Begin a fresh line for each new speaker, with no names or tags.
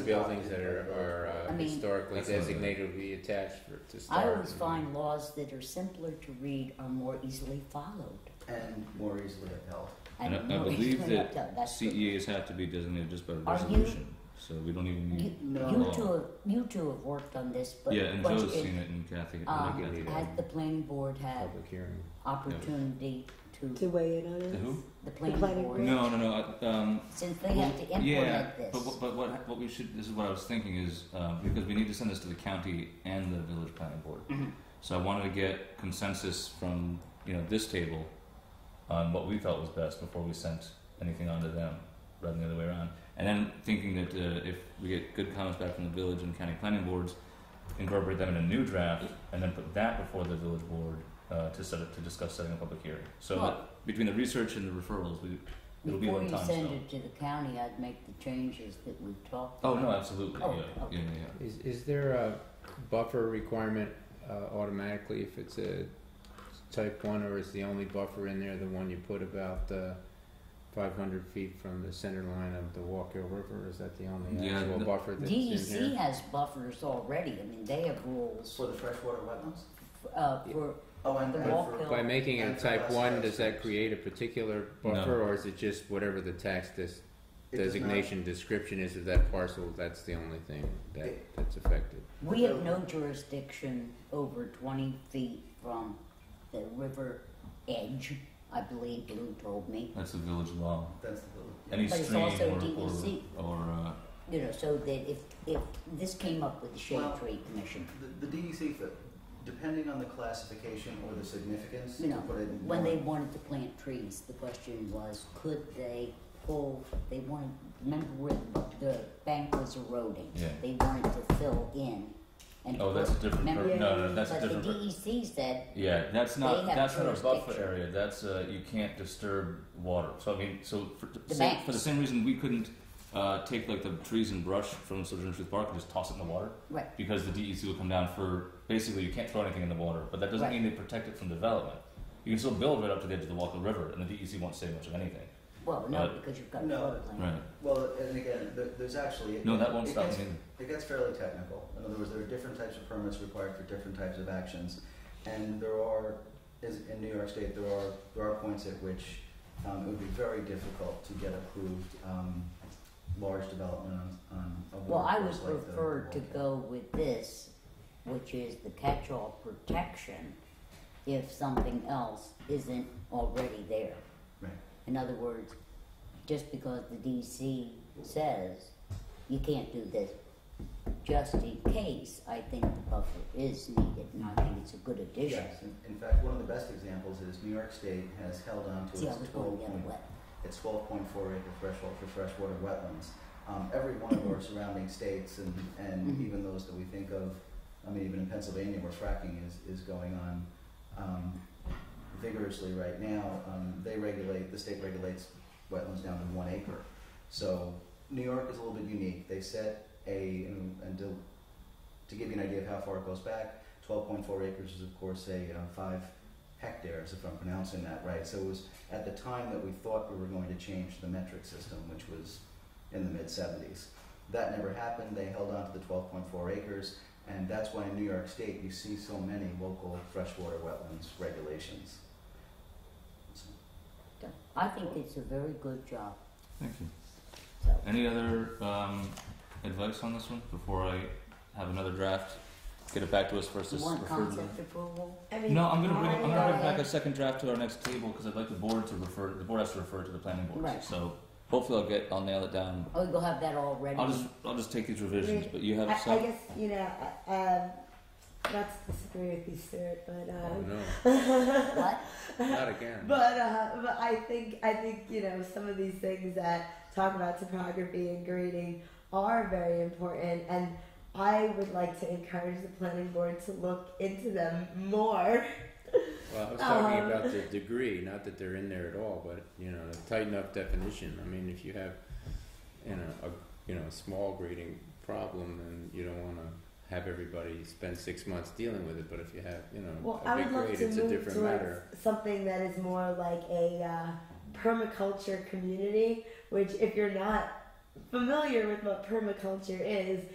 buildings that are, are
I
uh,
mean-
historically
That's not bad.
designated will be attached for, to start.
I always find laws that are simpler to read are more easily followed.
and more easily upheld.
And I, I
more
believe
easily
that E
upheld. That's good.
CEAs have to be designated just by
Are you-
resolution, so we don't even
You,
need.
No.
you
law.
two, have, you two have worked on this, but
Yeah, and
but
Joe's
it-
seen it and Kathy. and
um,
Kathy.
Yeah.
has the planning board had
Public hearing.
opportunity
to
to
weigh in on
The
it.
who?
the planning
planning
board
No, no, no, I- um,
since they have to implement
yeah,
this.
But, what- but what, what we should, this is what I was thinking is, um, because we need to send this to the county and the village planning board.
Mhm.
So I wanted to get consensus from, you know, this table on what we felt was best before we sent anything on to them, rather than the other way around. And then thinking that uh, if we get good comments back from the village and county planning boards, incorporate them in a new draft and then put that before the village board uh, to set it, to discuss setting a public hearing. So
Well-
that between the research and the referrals, we, it'll be
Before
one
you
time.
send
so.
it to the county, I'd make the changes that we've talked.
Oh
about.
no, absolutely.
Oh,
yeah.
okay.
yeah, yeah,
Is, is there a buffer requirement uh, automatically if it's a type one, or is the only buffer in there the one you put about uh, 500 feet from the center line of the Walker River? Is that the only
Yeah,
actual
the-
buffer that's in
DEC
here?
E has buffers already. I mean, they have rules
For the freshwater wetlands?
uh, for
Oh, and
The
and
walk
for-
hill.
By making it
And for
type
us,
one,
that's
does
six.
that create a particular buffer, or is it just whatever the tax dis-
It does not-
designation description is of that parcel? That's the only thing that,
It-
that's affected.
We have no jurisdiction over twenty feet from the river edge, I believe Lou told me.
That's a village law.
That's the building.
Any
But it's
stream
also E
or,
DEC.
or, or uh,
You know, so that if, if this came up with the Shade
Well-
Tree Commission,
The, the DEC, fit, depending on the classification or the significance,
you
to
know,
put it in
when
one-
they wanted to plant trees, the question was, could they pull, they wanted, remember where the bank was eroding?
Yeah.
They wanted to fill in and.
oh, that's a different.
Remember-
per- no, no, that's a
But the
different. per-
DEC said,
yeah, that's not
They have
that's not a buffer
jurisdiction.
area. That's uh, you can't disturb water. So I mean, so for,
The
same-
banks.
for the same reason we couldn't uh, take like the trees and brush from Sojourner Truth Park and just toss it in the water
right,
because the DEC will come down for basically you can't throw anything in the water, but that doesn't
Right.
mean they protect it from development. You can still build right up to the edge of the Walker River, and the DEC won't say much of anything.
well, no,
But-
because you've got
No.
floodplain.
Uh, Right.
Well, and again, th- there's actually. it-
No, that won't
it
stop
gets-
me.
It gets fairly technical. In other words, there are different types of permits required for different types of actions, and there are, is in New York State, there are there are points at which um, it would be very difficult to get approved um, large development on, on a
Well, I would
watercourse like the
prefer to
Walker.
go with this, which is the catch-all protection if something else isn't already there.
Right.
In other words, just because the DC says you can't do this, just in case, I think the buffer is needed, and I think it's a good addition.
Yes, in, in fact, one of the best examples is New York State has held on to
See, I
its
was going
twelve
the other
point
way.
It's twelve point four acre threshold for freshwater wetlands. Um, every one of our surrounding states and, and
Mhm.
even those that we think of, I mean, even in Pennsylvania where fracking is, is going on, um, vigorously right now, um, they regulate, the state regulates wetlands down to one acre. So New York is a little bit unique. They set a, and, and to, to give you an idea of how far it goes back, twelve point four acres is of course a, uh, five hectares, if I'm pronouncing that right. So it was at the time that we thought we were going to change the metric system, which was in the mid 70s. That never happened. They held on to the 12.4 acres, and that's why in New York State you see so many local freshwater wetlands regulations. So,
I think it's a very good job,
Thank you.
so.
Any other um, advice on this one before I have another draft? Get it back to us first.
You
as
want
referred to them?
concept approval?
I mean,
No, I'm gonna bring,
I um,
I'm gonna bring
got
back
it.
a second draft to our next table because I'd like the board to refer. The board has to refer to the planning board.
Right.
So hopefully I'll get I'll nail it down.
Oh, you'll have that all ready?
I'll just I'll just take these revisions, but you have
I, I
some.
guess you know, uh, um, not to disagree with you, Stuart, but
Oh,
um,
no,
What?
not again.
but uh, but I think I think you know some of these things that talk about topography and grading are very important, and I would like to encourage the planning board to look into them more.
Well, I was talking
Um,
about the degree, not that they're in there at all, but you know, a tight enough definition. I mean, if you have, you know, a you know, a small grading problem, then you don't want to have everybody spend six months dealing with it. But if you have, you know,
Well,
a
I
big
would love
grade,
to
it's a
move
different
towards
matter.
something that is more like a uh, permaculture community. Which, if you're not familiar with what permaculture is,